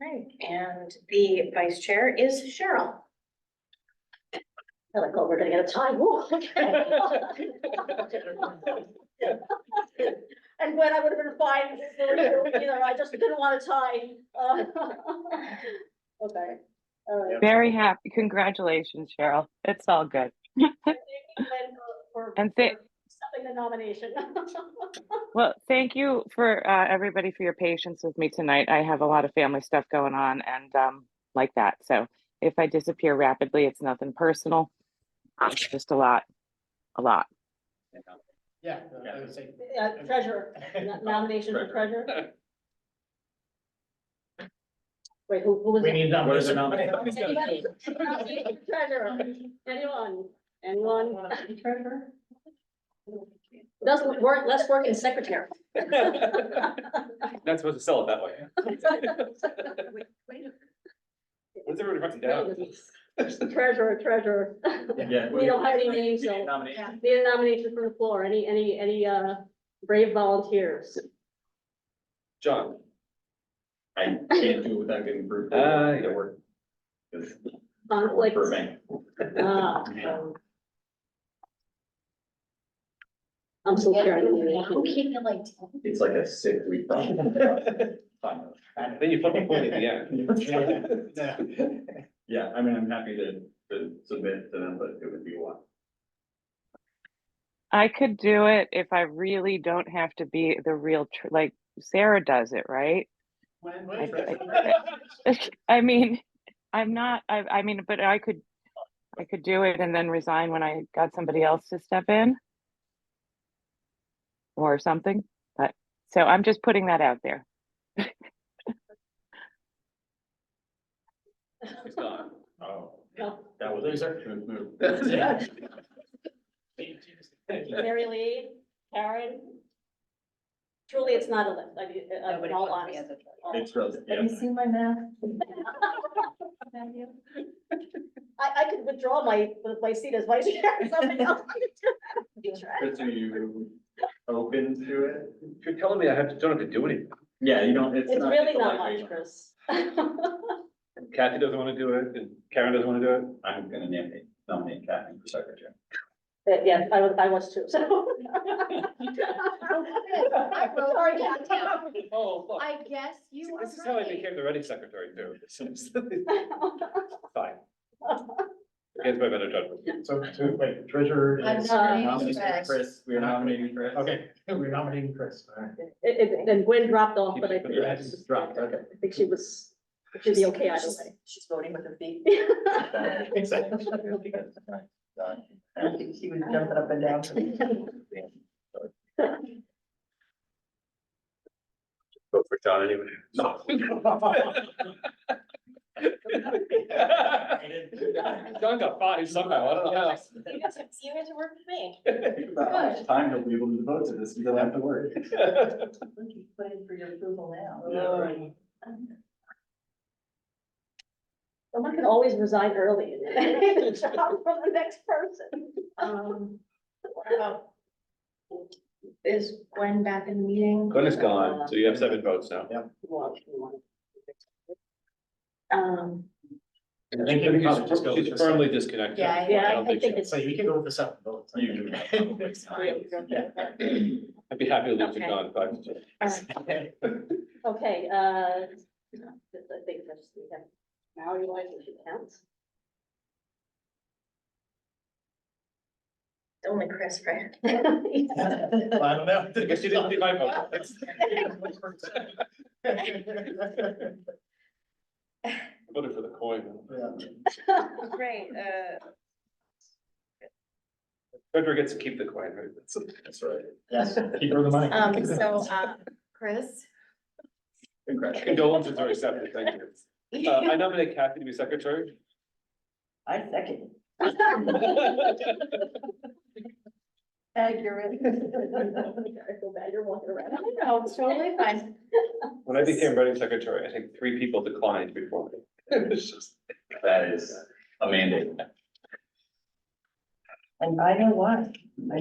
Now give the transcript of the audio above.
Right, and the vice chair is Cheryl. I like, oh, we're gonna get a tie. Woo, okay. And when I would have been fine, you know, I just didn't want a tie. Uh, Okay, all right. Very happy. Congratulations, Cheryl. It's all good. Thank you, Lynn, for- for- And thi- for Accepting the nomination. Well, thank you for uh, everybody for your patience with me tonight. I have a lot of family stuff going on and um, like that. So if I disappear rapidly, it's nothing personal. It's just a lot, a lot. Yeah, I would say. Uh, Treasurer, no- nomination for treasurer. Wait, who, who was We it? need numbers. Anybody? Nomination for Treasurer, anyone, anyone? Treasurer? Doesn't work, let's work in secretary. Not supposed to sell it that way. What's everybody writing down? Treasurer, treasurer. Yeah. We don't have any names, so- Nomination. Need a nomination from the floor, any, any, any, uh, brave volunteers? John. I can't do it without getting approved. Ah, yeah. It worked. Conflicts? For me. Ah, um, I'm still Karen. It's like a sick week. problem. Fine. Then you flip a coin at the end. Yeah, I mean, I'm happy to, to submit to them, but it would be one. I could do it if I really don't have to be the real, tr- like Sarah does it, right? I mean, I'm not, I, I mean, but I could, I could do it and then resign when I got somebody else to step in. Or something, but, so I'm just putting that out there. It's gone. Oh, No. that was. Loser. Good move. Mary Lee, Karen. Truly, it's not a lift, I mean, uh, in all honesty. It's really, yeah. Have you seen my math? I, I could withdraw my, my seat as vice chair, somebody else. But are you open to it? You're telling me I have to, don't have to do anything. Yeah, you don't, it's not. It's really a not lightweight much, one. Chris. All Kathy doesn't want to do it, and Karen doesn't want to do it. I'm gonna nominate, nominate Kathy for secretary. But yeah, I was, I was too, so. Sorry, Kat. Oh, look. I guess you This is how I are right. became the running secretary too. Fine. Against my better judgment. So, to, wait, treasurer I'm is. sorry. we're nominating Chris. Chris, we're nominating Chris. Okay, we're nominating Chris, all right. It, it, then Gwen dropped off, but I think. Yeah, just dropped, okay. I think she was, she'd be okay either way. She's voting with her feet. Exactly. I don't think she was jumping up and down. Vote for John anyway. No. John got five somehow, I don't know how. You guys have, you guys have worked with me. Think about how much time he'll be able to devote to this, he doesn't have to worry. Look, he's putting for your approval Yeah, now. right. Someone can always resign early and then take the job from the next person. Um, what about- Is Gwen back in the meeting? Glenn is gone, so you have seven votes now. Um, I think you can just go with She's the firmly second. disconnected. Yeah, I- I yeah, don't I- I think think so. it's. So you can go with the second vote. You Okay, I'd be happy to lose to Okay. John, but uh, I think that's, we have, now you like, if it counts. Only Chris, right? Well, I don't know. I guess you didn't see my vote. Voted for the coin. Right, uh. Frederick gets to keep the coin, right? That's right. Yes, keep her the money. Um, so, uh, Chris? Congratulations. Condolences are accepted, thank you. Uh, I nominate Kathy to be secretary. I second. All Accurate. I feel bad, you're walking around. No, it's totally fine. When I became running secretary, I think three people declined before me. It's just, That is a mandate. And I know why.